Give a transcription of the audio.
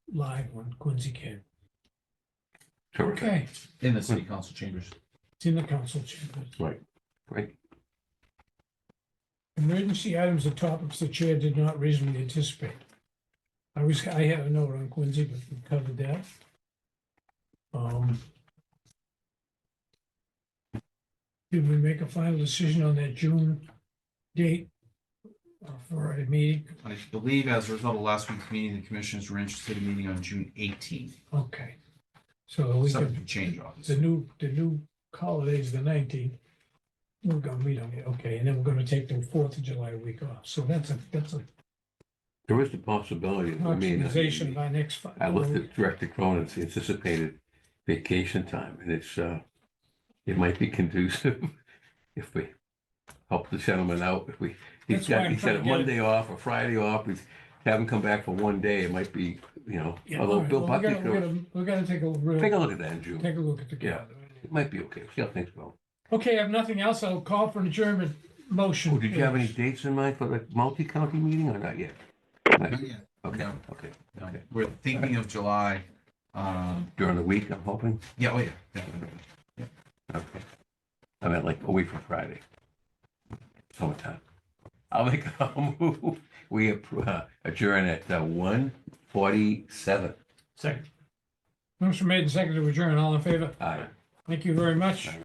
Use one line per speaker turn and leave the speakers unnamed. live on Quincy can.
Terrific.
Okay,
in the city council chambers.
it's in the council chambers.
Great.
Emergency items are topics the chair did not reasonably anticipate. I was, I had a note on Quincy, but we covered that. Um. Did we make a final decision on that June date uh, for a meeting?
I believe as a result of last week's meeting, the commissioners were interested in meeting on June eighteenth.
Okay. So we
Something
could,
could change on
the
this.
new, the new holiday's the nineteenth. We're gonna meet on it, okay, and then we're gonna take the Fourth of July week off, so that's a, that's a
There is the possibility, I mean,
optimization
uh,
by next. fi-
I looked at Director Cronin's anticipated vacation time, and it's, uh, it might be conducive if we help the gentleman out, if we, he's
That's why
got,
I'm
he's got
trying
a
to get it.
Monday off, a Friday off, he's, have him come back for one day, it might be, you know,
Yeah, all
although
right,
Bill
well, we
Buckley,
gotta- we
could-
gotta- We gotta take a,
take a
real-
look at that in June,
take a look at the
Yeah.
calendar.
it might be okay, see how things go.
Okay, I have nothing else. I'll call for an adjournment motion.
Oh, did you have any
please.
dates in mind for the multi-county meeting or not yet? Not yet. Okay,
No.
okay,
No,
Okay.
We're thinking of July. Um,
during the week, I'm hoping,
yeah, oh yeah, yeah.
okay. I meant like a week from Friday. Summertime. I'll make, I'll move, we appro- uh, adjourn at one forty-seven.
Second. Motion made and seconded to adjourn. All in favor?
Aye.
Thank you very much.